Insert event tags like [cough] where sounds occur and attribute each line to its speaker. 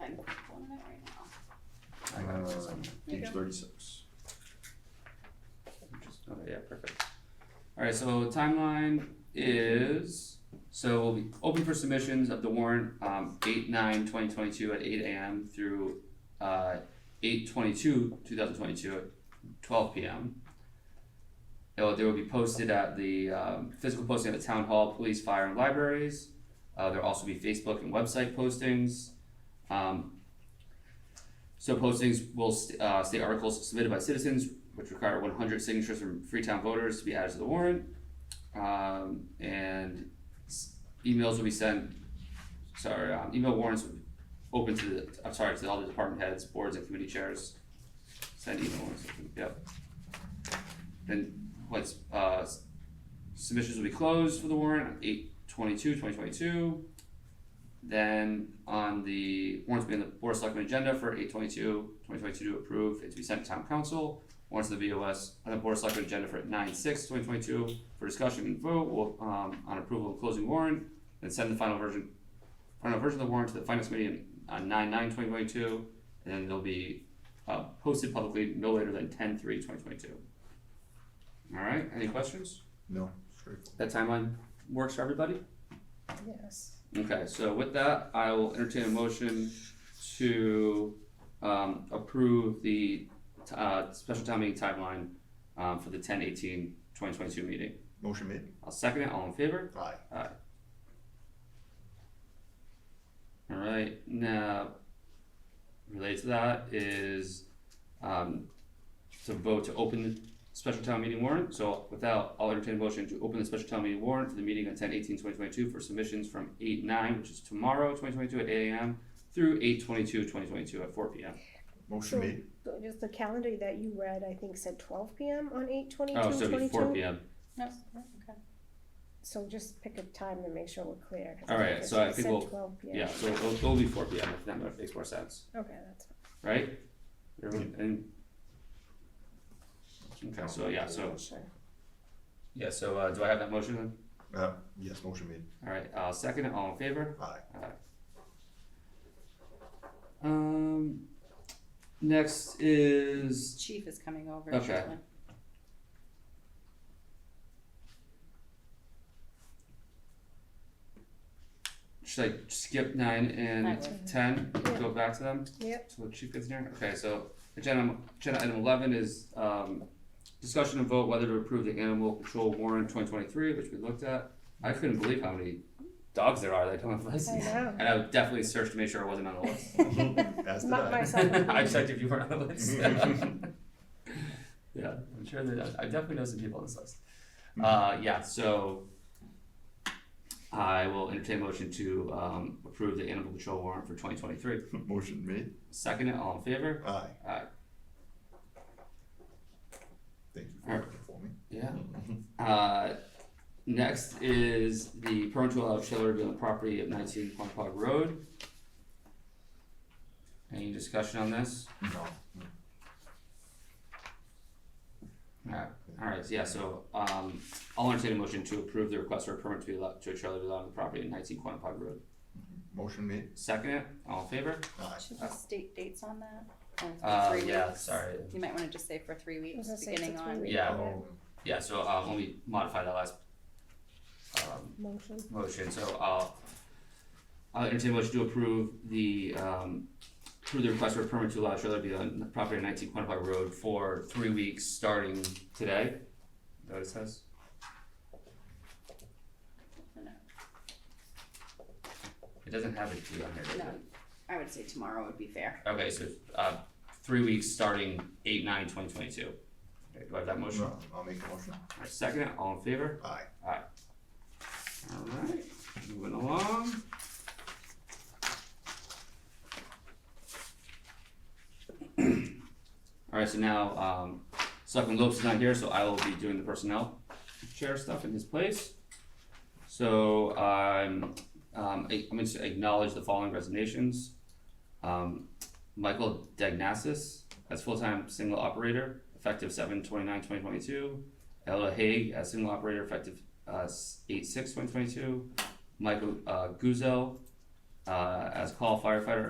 Speaker 1: I'm pulling it right now.
Speaker 2: I got it.
Speaker 3: Uh,
Speaker 1: There you
Speaker 3: Page
Speaker 1: go.
Speaker 3: thirty-six.
Speaker 2: Okay, yeah, perfect. Alright, so timeline is, so we'll be open for submissions of the warrant, um, eight nine twenty twenty-two at eight AM through, uh, eight twenty-two, two thousand twenty-two at twelve PM. It will, they will be posted at the, um, physical posting at the town hall, police, fire, and libraries. Uh, there'll also be Facebook and website postings. Um, so postings will st- uh, state articles submitted by citizens, which require one hundred signatures from Freetown voters to be added to the warrant. Um, and s- emails will be sent, sorry, um, email warrants will be open to the, I'm sorry, to all the department heads, boards and committee chairs. Send email warrants, yep. Then once, uh, s- submissions will be closed for the warrant, on eight twenty-two, twenty twenty-two. Then on the warrants being the board of selectmen agenda for 822-2022 to approve, it to be sent to town council. Warrants to the BOS on the board of selectmen agenda for 9-6-2022 for discussion and vote, will, um, on approval of closing warrant. Then send the final version, final version of the warrant to the finance committee on 9-9-2022, And then they'll be, uh, posted publicly no later than 10-3-2022. Alright, any questions?
Speaker 3: No, straightforward.
Speaker 2: That timeline works for everybody?
Speaker 4: Yes.
Speaker 2: Okay, so with that, I will entertain a motion to um approve the uh special town meeting timeline um for the 10-18-2022 meeting.
Speaker 3: Motion made.
Speaker 2: I'll second it, all in favor?
Speaker 3: Aye.
Speaker 2: Alright, now related to that is um to vote to open the special town meeting warrant, so without, I'll entertain a motion to open the special town meeting warrant for the meeting on 10-18-2022 for submissions from eight nine, which is tomorrow, twenty twenty two at eight AM through 8-22-2022 at four PM.
Speaker 3: Motion
Speaker 4: So-
Speaker 3: made.
Speaker 4: But Just the calendar that you read, I think said twelve PM on eight twenty-two
Speaker 2: Oh, so it'd be four
Speaker 4: twenty-two.
Speaker 2: PM.
Speaker 1: No, okay.
Speaker 4: So just pick a time to make sure we're clear. 'cause
Speaker 2: All right,
Speaker 4: it
Speaker 2: so I
Speaker 4: said
Speaker 2: think we'll-
Speaker 4: 12 p.m.
Speaker 2: Yeah, so it'll, it'll be four PM if that makes more sense,
Speaker 4: Okay, that's, fine.
Speaker 2: right? Everyone, and. Okay, so yeah, so,
Speaker 4: sure.
Speaker 2: yeah, so uh, do I have that motion then?
Speaker 3: Uh, yes, motion made.
Speaker 2: Alright, I'll uh, second it, all in favor?
Speaker 3: Aye.
Speaker 2: Um, next is,
Speaker 1: Chief is coming over
Speaker 2: Okay.
Speaker 1: shortly.
Speaker 2: should I skip nine
Speaker 1: I
Speaker 2: and
Speaker 1: would.
Speaker 2: ten,
Speaker 4: Yeah.
Speaker 2: go back to them?
Speaker 4: Yep,
Speaker 2: So the chief gets in here, okay, so agenda, agenda item eleven is, um, discussion and vote whether to approve the animal control warrant twenty twenty-three, which we looked at. I couldn't believe how many dogs there are that don't have
Speaker 4: I
Speaker 2: license,
Speaker 4: know.
Speaker 2: and I definitely searched to make sure I wasn't on the list.
Speaker 3: As did
Speaker 4: Not
Speaker 3: I.
Speaker 2: [laughs]
Speaker 4: myself.
Speaker 2: I checked if you weren't on the list. Yeah, I'm sure that, I definitely know some people on this list. Uh, yeah, so I will entertain a motion to, um, approve the animal control warrant for twenty twenty-three.
Speaker 3: [laughs] Motion made.
Speaker 2: Second it, all in favor?
Speaker 3: Aye.
Speaker 2: Aye.
Speaker 3: Thank you for
Speaker 2: Alright.
Speaker 3: looking for me. [laughs]
Speaker 2: Yeah. Uh, next is the permit to allow trailer to be on the property of nineteen Quanpog Road. Any discussion on this?
Speaker 3: No.
Speaker 2: Alright, alright, yeah, so, um, I'll entertain a motion to approve the request for a permit to be allowed, to a trailer to be allowed on the property of nineteen Quanpog Road.
Speaker 3: Motion made.
Speaker 2: Second it, all in favor?
Speaker 3: Aye.
Speaker 1: Should we state dates on that? Or for
Speaker 2: Uh,
Speaker 1: three
Speaker 2: yeah,
Speaker 1: weeks?
Speaker 2: sorry.
Speaker 1: You might wanna just say for three
Speaker 4: I was
Speaker 1: weeks,
Speaker 4: gonna say it's a
Speaker 1: beginning on.
Speaker 4: three-week
Speaker 2: Yeah.
Speaker 4: event.
Speaker 3: Oh,
Speaker 2: Yeah, so, uh, let me modify that last, um,
Speaker 4: Motion,
Speaker 2: motion, so I'll, I'll entertain a motion to approve the, um, approve the request for a permit to allow trailer to be on the property of nineteen Quantified Road for three weeks, starting today. Is that what it says?
Speaker 1: No,
Speaker 2: It doesn't have a due on here, does it?
Speaker 1: no, I would say tomorrow would be fair.
Speaker 2: Okay, so, uh, three weeks, starting eight, nine, twenty twenty-two. Okay, do I have that motion?
Speaker 3: No, I'll make a motion.
Speaker 2: Alright, Second, it, all in favor?
Speaker 3: Aye.
Speaker 2: Alright, moving along. Alright, so now, um, Selectman Lopes is not here, so I will be doing the personnel chair stuff in his place. So, um, um, I- I'm gonna acknowledge the following resignations. Um, Michael Dagnasis as full-time single operator, effective seven twenty-nine twenty twenty-two. Ella Haig as single operator, effective uh, s- eight six one twenty two, Michael uh, Guzel uh, as call firefighter